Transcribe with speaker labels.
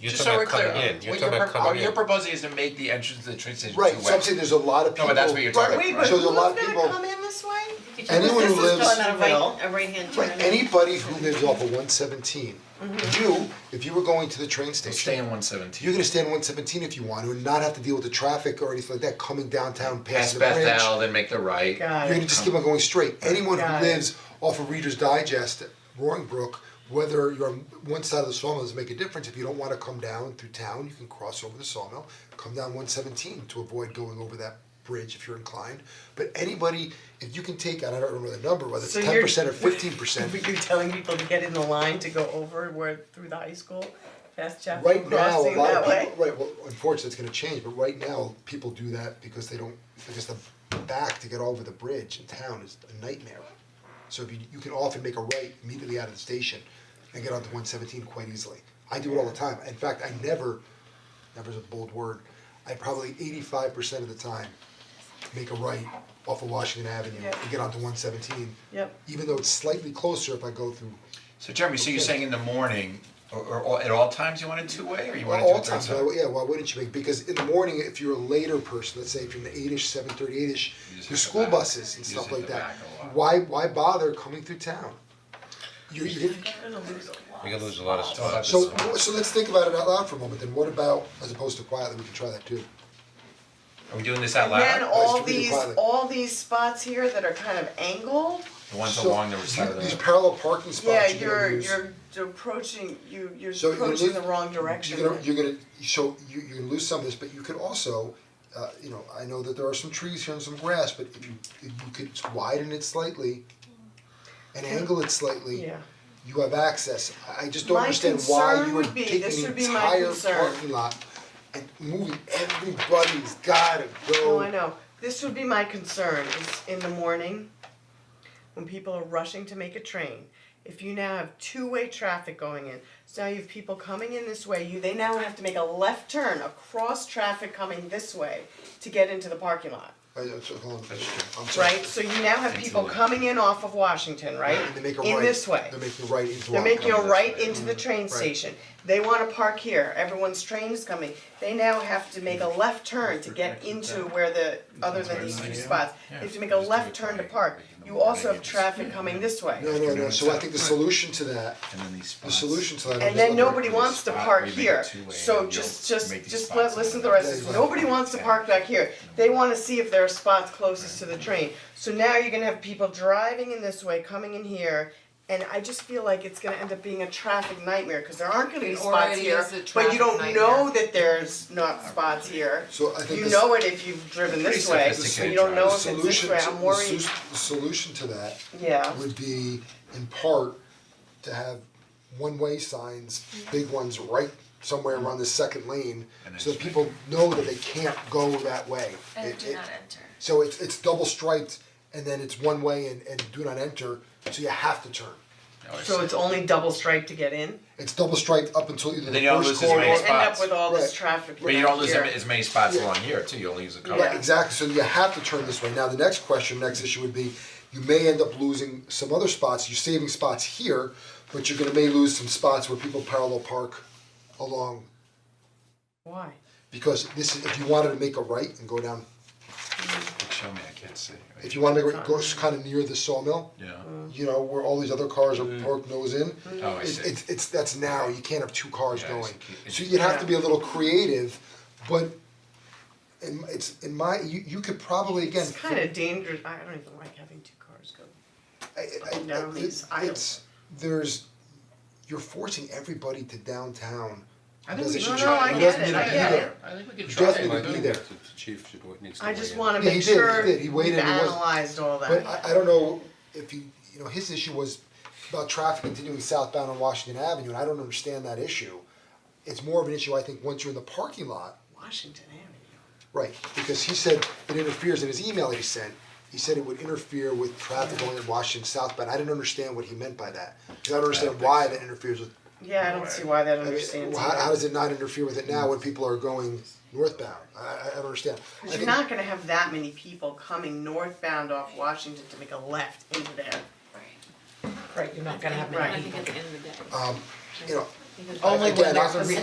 Speaker 1: You're
Speaker 2: Just so
Speaker 1: talking
Speaker 2: we're
Speaker 1: about
Speaker 2: clear,
Speaker 1: coming in, you're talking
Speaker 2: what you're,
Speaker 1: about
Speaker 2: pro-
Speaker 1: coming
Speaker 2: what
Speaker 1: in.
Speaker 2: you're proposing is to make the entrance to the train station two way.
Speaker 3: Right, so I'm saying there's a lot of people.
Speaker 2: No, but that's what you're talking
Speaker 3: right,
Speaker 2: about,
Speaker 3: So there's a lot of
Speaker 4: Wait, but who's gonna come
Speaker 3: people,
Speaker 4: in this way?
Speaker 3: anyone who lives.
Speaker 4: This is a right, a right-hand turn.
Speaker 3: Right, anybody who lives off of one seventeen,
Speaker 4: Mm-hmm.
Speaker 3: you, if you were going to the train
Speaker 2: Stay
Speaker 3: station,
Speaker 2: in one seventeen.
Speaker 3: you're gonna stay on one seventeen if you want to and not have to deal with the traffic or anything like that, coming downtown past
Speaker 2: Pass
Speaker 3: the bridge.
Speaker 2: Bethel, then make the right.
Speaker 3: You're gonna just keep on going straight. Anyone
Speaker 5: Got
Speaker 3: who
Speaker 5: it.
Speaker 3: lives off of Reader's Digest, Roaring Brook, whether you're on one side of the sawmill doesn't make a difference. If you don't wanna come down through town, you can cross over the sawmill, come down one seventeen to avoid going over that bridge if you're inclined. But anybody, if you can take, and I don't remember the number, whether it's
Speaker 5: So
Speaker 3: ten
Speaker 5: you're-
Speaker 3: percent or fifteen percent.
Speaker 5: But you're telling people to get in the line to go over where, through the high school, past Chapel
Speaker 3: Right now, a
Speaker 5: Crossing
Speaker 3: lot
Speaker 5: that
Speaker 3: of
Speaker 5: way?
Speaker 3: people, right, well, unfortunately, it's gonna change, but right now, people do that because they don't, because the back to get over the bridge in town is a nightmare. So if you, you can often make a right immediately out of the station and get onto one seventeen quite easily. I do it all the time, in fact, I never, never's a bold word, I probably eighty-five percent of the time make a right off of Washington Avenue
Speaker 5: Yeah.
Speaker 3: and get onto one seventeen.
Speaker 5: Yep.
Speaker 3: Even though it's slightly closer if I go through
Speaker 2: So Jeremy, so you're saying in the morning, or, or all- at all times you want it two way, or you want it
Speaker 3: Well,
Speaker 2: two
Speaker 3: all
Speaker 2: thirds?
Speaker 3: times, why- yeah, why wouldn't you make, because in the morning, if you're a later person, let's say if you're an eight-ish, seven thirty, eight-ish,
Speaker 2: You just
Speaker 3: your
Speaker 2: hit the
Speaker 3: school
Speaker 2: back. You
Speaker 3: buses and
Speaker 2: just
Speaker 3: stuff
Speaker 2: hit
Speaker 3: like
Speaker 2: the
Speaker 3: that,
Speaker 2: back a lot.
Speaker 3: why, why bother coming through town? You're, you're,
Speaker 5: You're gonna lose a lot.
Speaker 1: You're gonna lose a lot of spots.
Speaker 3: so, so let's think about it out loud for a moment, then what about, as opposed to quietly, we can try that too.
Speaker 2: Are we doing this out
Speaker 5: And then
Speaker 2: loud?
Speaker 5: all
Speaker 3: Nice to meet you,
Speaker 5: these,
Speaker 3: Violet.
Speaker 5: all these spots here that are kind of angled,
Speaker 2: The ones
Speaker 3: So,
Speaker 2: along the side of
Speaker 3: you- These
Speaker 2: the,
Speaker 3: parallel parking
Speaker 5: yeah,
Speaker 3: spots you're
Speaker 5: you're,
Speaker 3: gonna use.
Speaker 5: you're approaching, you, you're
Speaker 3: So you're gonna
Speaker 5: approaching
Speaker 3: lose-
Speaker 5: the wrong direction.
Speaker 3: You're gonna, you're gonna, so you, you're gonna lose some of this, but you could also, uh, you know, I know that there are some trees here and some grass, but if you, if you could widen it slightly and angle it slightly,
Speaker 5: Yeah.
Speaker 3: you have access. I I just don't
Speaker 5: My
Speaker 3: understand why
Speaker 5: concern
Speaker 3: you are
Speaker 5: would be- this
Speaker 3: taking
Speaker 5: would
Speaker 3: an
Speaker 5: be my
Speaker 3: entire
Speaker 5: concern.
Speaker 3: parking lot and moving, everybody's gotta go.
Speaker 5: No, Oh, I know, this would be my concern, is in the morning, when people are rushing to make a train, if you now have two-way traffic going in, so now you have people coming in this way, you, they now have to make a left turn across traffic coming this way to get into the parking lot,
Speaker 3: I know, so hold on, I'm sorry.
Speaker 5: right? So you now have people coming in off of Washington, right?
Speaker 3: And they make a right.
Speaker 5: In this way.
Speaker 3: They're making a right into
Speaker 5: They're
Speaker 3: our-
Speaker 5: making a
Speaker 3: coming this
Speaker 5: right
Speaker 3: way.
Speaker 5: into the train station. They wanna park here, everyone's train is coming. They now have to make a left turn to get into where the, other than these two spots. They have to make a left turn to park. You also have traffic coming this way.
Speaker 3: No, no, no, so I think the solution to that,
Speaker 2: and then these
Speaker 3: the
Speaker 2: spots.
Speaker 3: solution to that. I'm just
Speaker 5: And then
Speaker 3: looking at-
Speaker 5: nobody wants to
Speaker 2: Spot,
Speaker 5: park
Speaker 2: we make it
Speaker 5: here,
Speaker 2: two-way,
Speaker 5: so
Speaker 2: and
Speaker 5: just,
Speaker 2: you'll
Speaker 5: just,
Speaker 2: make these
Speaker 5: just
Speaker 2: spots
Speaker 5: let, listen to the
Speaker 2: open.
Speaker 5: rest, of this.
Speaker 3: Yeah,
Speaker 5: nobody wants to park back here. They wanna see if there are spots closest to the train, so now you're gonna have people driving in this way, coming in here. And I just feel like it's gonna end up being a traffic nightmare, cause there aren't gonna be
Speaker 4: It
Speaker 5: spots
Speaker 4: already
Speaker 5: here,
Speaker 4: is a
Speaker 5: but you
Speaker 4: traffic
Speaker 5: don't know that there's not spots here.
Speaker 3: So I think
Speaker 5: You
Speaker 3: this-
Speaker 5: know it if you've driven this way, so you don't
Speaker 3: The
Speaker 5: know if it's this
Speaker 3: solution,
Speaker 5: way,
Speaker 3: to-
Speaker 5: I'm
Speaker 3: the
Speaker 5: worried,
Speaker 3: sus- the solution to that
Speaker 5: yeah,
Speaker 3: would be in part to have one-way signs, big ones right somewhere around the second lane, so that people know that they can't go that way.
Speaker 4: And
Speaker 3: It-
Speaker 4: do
Speaker 3: it-
Speaker 4: not enter.
Speaker 3: So it's it's double striped and then it's one way and and do not enter, so you have to turn.
Speaker 5: so it's only double stripe to get in.
Speaker 3: It's double striped up until either the
Speaker 2: Then you don't
Speaker 3: first
Speaker 2: lose as many
Speaker 3: corner.
Speaker 2: spots.
Speaker 5: And end up with all this
Speaker 3: Right.
Speaker 5: traffic
Speaker 2: But you don't lose
Speaker 5: back
Speaker 2: as ma-
Speaker 5: here.
Speaker 2: as many spots
Speaker 3: Yeah.
Speaker 2: along here too, you only use a couple.
Speaker 3: Right, exactly, so you have to turn this way, now the next question, next issue would be, you may end up losing some other spots, you're saving spots here, but you're gonna may lose some spots where people parallel park along,
Speaker 5: Why?
Speaker 3: because this is, if you wanted to make a right and go down,
Speaker 2: Show me, I can't see.
Speaker 3: if you wanna make a right, go s- kinda near the sawmill,
Speaker 2: Yeah, Mm.
Speaker 3: you know, where all these other cars are parked nose in.
Speaker 2: Oh, I
Speaker 3: It's
Speaker 2: see.
Speaker 3: it's it's that's narrow, you can't have two cars
Speaker 2: Yeah, I
Speaker 3: going,
Speaker 2: see. Keep-
Speaker 3: so you'd have to be a little creative, but in it's in my, you you could probably, again,
Speaker 5: It's kind of dangerous, I don't even like having two cars go.
Speaker 3: I I I
Speaker 5: Down these
Speaker 3: it-
Speaker 5: aisles.
Speaker 3: it's there's you're forcing everybody to downtown. I
Speaker 2: think we
Speaker 3: doesn't
Speaker 2: should
Speaker 3: need-
Speaker 2: try it. No, I
Speaker 3: who doesn't
Speaker 5: get it,
Speaker 3: need to
Speaker 5: I
Speaker 3: be
Speaker 5: get
Speaker 3: there.
Speaker 5: it.
Speaker 2: I think we could
Speaker 3: Who
Speaker 2: try
Speaker 3: doesn't
Speaker 2: it.
Speaker 3: need to be there.
Speaker 6: The chief should, wa- needs to
Speaker 5: I
Speaker 6: weigh
Speaker 5: just
Speaker 6: in.
Speaker 5: wanna
Speaker 3: Yeah, he
Speaker 5: make
Speaker 3: did, he
Speaker 5: sure
Speaker 3: did. He waited
Speaker 5: we've
Speaker 3: and he wasn't-
Speaker 5: analyzed all that.
Speaker 3: But I I don't know if you, you know, his issue was about traffic continuing southbound on Washington Avenue, and I don't understand that issue. It's more of an issue, I think, once you're in the parking lot,
Speaker 5: Washington Avenue.
Speaker 3: right, because he said it interferes in his email that he sent. He said it would interfere with traffic going in Washington southbound. I didn't understand what he meant by that. 'cause I don't understand why that interferes with
Speaker 5: Yeah, I don't see why that
Speaker 3: I mean,
Speaker 5: understands
Speaker 3: How, how
Speaker 5: either.
Speaker 3: does it not interfere with it now when people are going northbound? I, I- I don't understand. I
Speaker 5: Cause you're
Speaker 3: think-
Speaker 5: not gonna have that many people coming northbound off Washington to make a left into there. Right, you're not gonna have
Speaker 7: I think at the end of the day.
Speaker 3: You know,
Speaker 5: Only
Speaker 3: again,
Speaker 5: when there's
Speaker 3: I-
Speaker 5: a